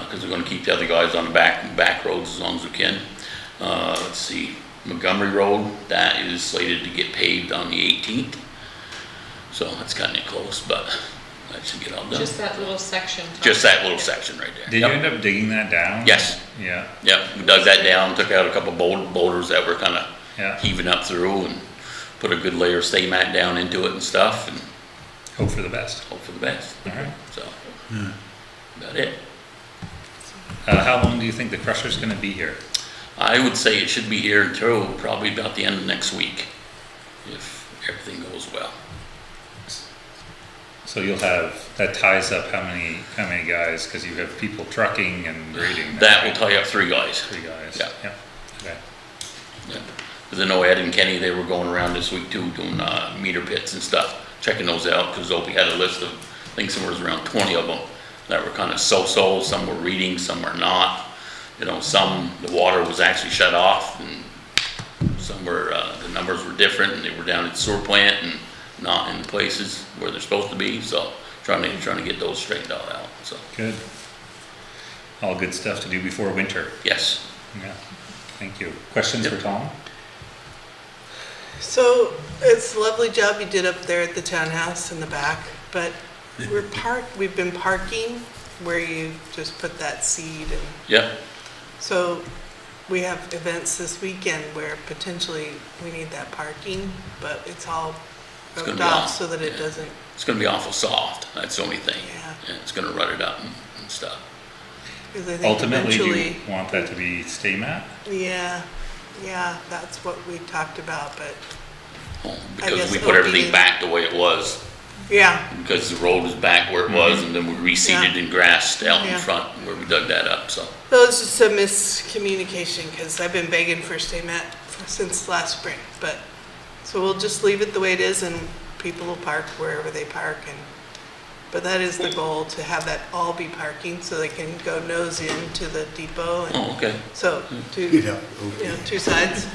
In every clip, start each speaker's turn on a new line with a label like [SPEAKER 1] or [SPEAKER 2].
[SPEAKER 1] because Uh, we're gonna keep the other guys on the back, back roads as long as we can. Uh, let's see, Montgomery Road, that is slated to get paved on the eighteenth. So that's kinda close, but that should get all done.
[SPEAKER 2] Just that little section. Tom.
[SPEAKER 1] Just that little section right there.
[SPEAKER 3] Did you
[SPEAKER 1] Yep.
[SPEAKER 3] end up digging that down?
[SPEAKER 1] Yes.
[SPEAKER 3] Yeah,
[SPEAKER 1] Yep, we dug that down, took out a couple boul- boulders that were kinda
[SPEAKER 3] Yeah.
[SPEAKER 1] heaving up through and put a good layer of stay mat down into it and stuff and
[SPEAKER 3] hope for the best.
[SPEAKER 1] hope for the best,
[SPEAKER 3] All right.
[SPEAKER 1] so.
[SPEAKER 3] Hmm.
[SPEAKER 1] About it.
[SPEAKER 3] Uh, how long do you think the crusher's gonna be here?
[SPEAKER 1] I would say it should be here until probably about the end of next week, if everything goes well.
[SPEAKER 3] So you'll have, that ties up how many, how many guys, cause you have people trucking and grading.
[SPEAKER 1] That will tie
[SPEAKER 3] right?
[SPEAKER 1] up three guys.
[SPEAKER 3] Three guys.
[SPEAKER 1] Yeah.
[SPEAKER 3] Yeah, okay.
[SPEAKER 1] Because I know Ed and Kenny, they were going around this week too, doing uh, meter pits and stuff, checking those out, because Opie had a list of, I think somewhere was around 20 of them, that were kind of so-so, some were reading, some were not. You know, some, the water was actually shut off, and some were, uh, the numbers were different, and they were down at sewer plant and not in places where they're supposed to be, so trying to, trying to get those straightened all out, so,
[SPEAKER 3] Good. All good stuff to do before winter.
[SPEAKER 1] yes.
[SPEAKER 3] Yeah, thank you. Questions for Tom?
[SPEAKER 4] So it's a lovely job you did up there at the townhouse in the back, but we're park, we've been parking where you just put that seed and
[SPEAKER 1] Yep,
[SPEAKER 4] so we have events this weekend where potentially we need that parking, but it's all
[SPEAKER 1] gonna
[SPEAKER 4] roped
[SPEAKER 1] be
[SPEAKER 4] off
[SPEAKER 1] on,
[SPEAKER 4] so that it
[SPEAKER 1] yeah.
[SPEAKER 4] doesn't,
[SPEAKER 1] it's gonna be awful soft, that's the only thing.
[SPEAKER 4] Yeah.
[SPEAKER 1] And it's gonna rut it up and and stuff.
[SPEAKER 4] because I think
[SPEAKER 3] Ultimately, do you
[SPEAKER 4] eventually,
[SPEAKER 3] want that to be stay mat?
[SPEAKER 4] yeah, yeah, that's what we talked about, but
[SPEAKER 1] home,
[SPEAKER 4] I
[SPEAKER 1] because
[SPEAKER 4] guess
[SPEAKER 1] we
[SPEAKER 4] it
[SPEAKER 1] put
[SPEAKER 4] would
[SPEAKER 1] everything
[SPEAKER 4] be-
[SPEAKER 1] back the way it was,
[SPEAKER 4] yeah,
[SPEAKER 1] because the road was back where it
[SPEAKER 3] Mm-hmm.
[SPEAKER 1] was, and then we reseeded
[SPEAKER 4] Yeah.
[SPEAKER 1] and grassed out in
[SPEAKER 4] Yeah.
[SPEAKER 1] front where we dug that up, so.
[SPEAKER 4] that was just a miscommunication because I've been begging for stay mat since last spring, but So we'll just leave it the way it is and people will park wherever they park and, but that is the goal, to have that all be parking so they can go nose in to the depot and,
[SPEAKER 1] Oh, okay,
[SPEAKER 4] so, two,
[SPEAKER 5] You'd
[SPEAKER 4] you
[SPEAKER 5] have to open
[SPEAKER 4] know,
[SPEAKER 5] it.
[SPEAKER 4] two sides.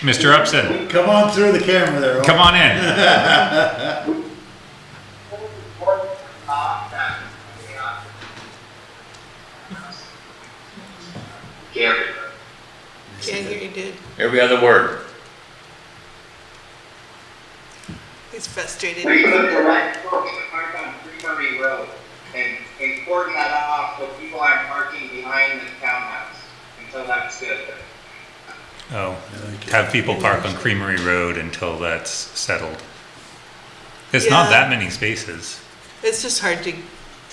[SPEAKER 3] Mr. Upson,
[SPEAKER 5] Come on through the camera there. Owen.
[SPEAKER 3] come on in.
[SPEAKER 6] Gary,
[SPEAKER 4] Can't hear you, dude.
[SPEAKER 1] every other word,
[SPEAKER 4] He's frustrated.
[SPEAKER 6] we put the right folks to park on Creamery Road and, and cordon that off so people aren't parking behind the townhouse until that's good.
[SPEAKER 3] Oh, have people park on Creamery Road until that's settled. It's not
[SPEAKER 4] Yeah.
[SPEAKER 3] that many spaces.
[SPEAKER 4] It's just hard to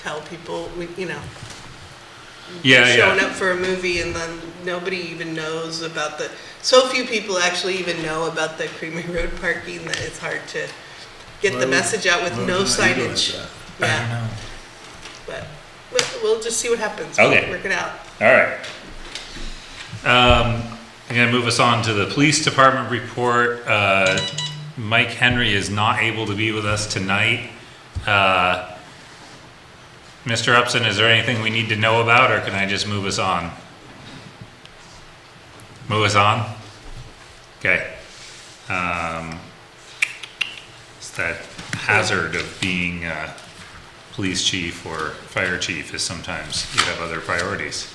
[SPEAKER 4] tell people, we- you know,
[SPEAKER 3] Yeah,
[SPEAKER 4] showing up
[SPEAKER 3] yeah.
[SPEAKER 4] for a movie and then nobody even knows about the, so few people actually even know about the Creamy Road parking that it's hard to get
[SPEAKER 5] Why
[SPEAKER 4] the
[SPEAKER 5] would-
[SPEAKER 4] message out with
[SPEAKER 5] why would
[SPEAKER 4] no
[SPEAKER 5] you not do it
[SPEAKER 4] signage.
[SPEAKER 5] that?
[SPEAKER 4] Yeah. But we- we'll just see what happens. We'll
[SPEAKER 3] Okay.
[SPEAKER 4] Work it out.
[SPEAKER 3] All right. Um, I'm gonna move us on to the police department report. Uh, Mike Henry is not able to be with us tonight. Uh, Mr. Upson, is there anything we need to know about, or can I just move us on? Move us on? Okay. Um, It's that hazard of being, uh, police chief or fire chief is sometimes you have other priorities.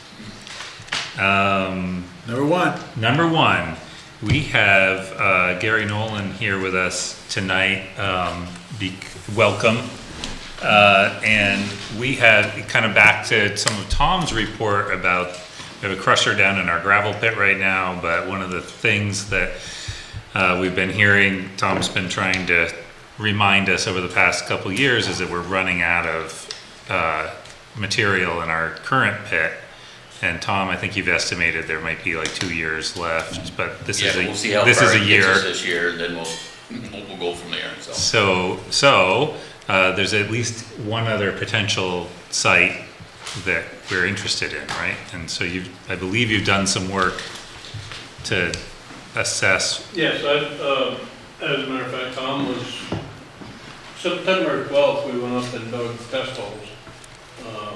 [SPEAKER 5] Number one.
[SPEAKER 3] Number one, we have uh, Gary Nolan here with us tonight. Um, be- welcome. Uh, and we have kind of back to some of Tom's report about we have a crusher down in our gravel pit right now, but one of the things that uh, we've been hearing, Tom's been trying to remind us over the past couple of years, is that we're running out of uh, material in our current pit. And Tom, I think you've estimated there might be like two years left, but this
[SPEAKER 1] yeah,
[SPEAKER 3] is a,
[SPEAKER 1] we'll see how
[SPEAKER 3] this
[SPEAKER 1] far
[SPEAKER 3] is a
[SPEAKER 1] it gets us
[SPEAKER 3] year.
[SPEAKER 1] this year, and then we'll, we'll- we'll go from there, so.
[SPEAKER 3] So, so, uh, there's at least one other potential site that we're interested in, right? And so you've, I believe you've done some work to assess,
[SPEAKER 7] Yes, I, um, as a matter of fact, Tom was, September twelfth, we went up and dug test holes. um,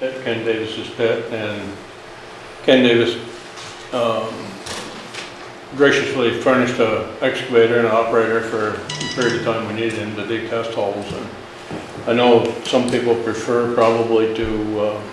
[SPEAKER 7] At Ken Davis's pit, and Ken Davis, um, graciously furnished a excavator and operator for the period of time we needed him to dig test holes. And I know some people prefer probably to, uh,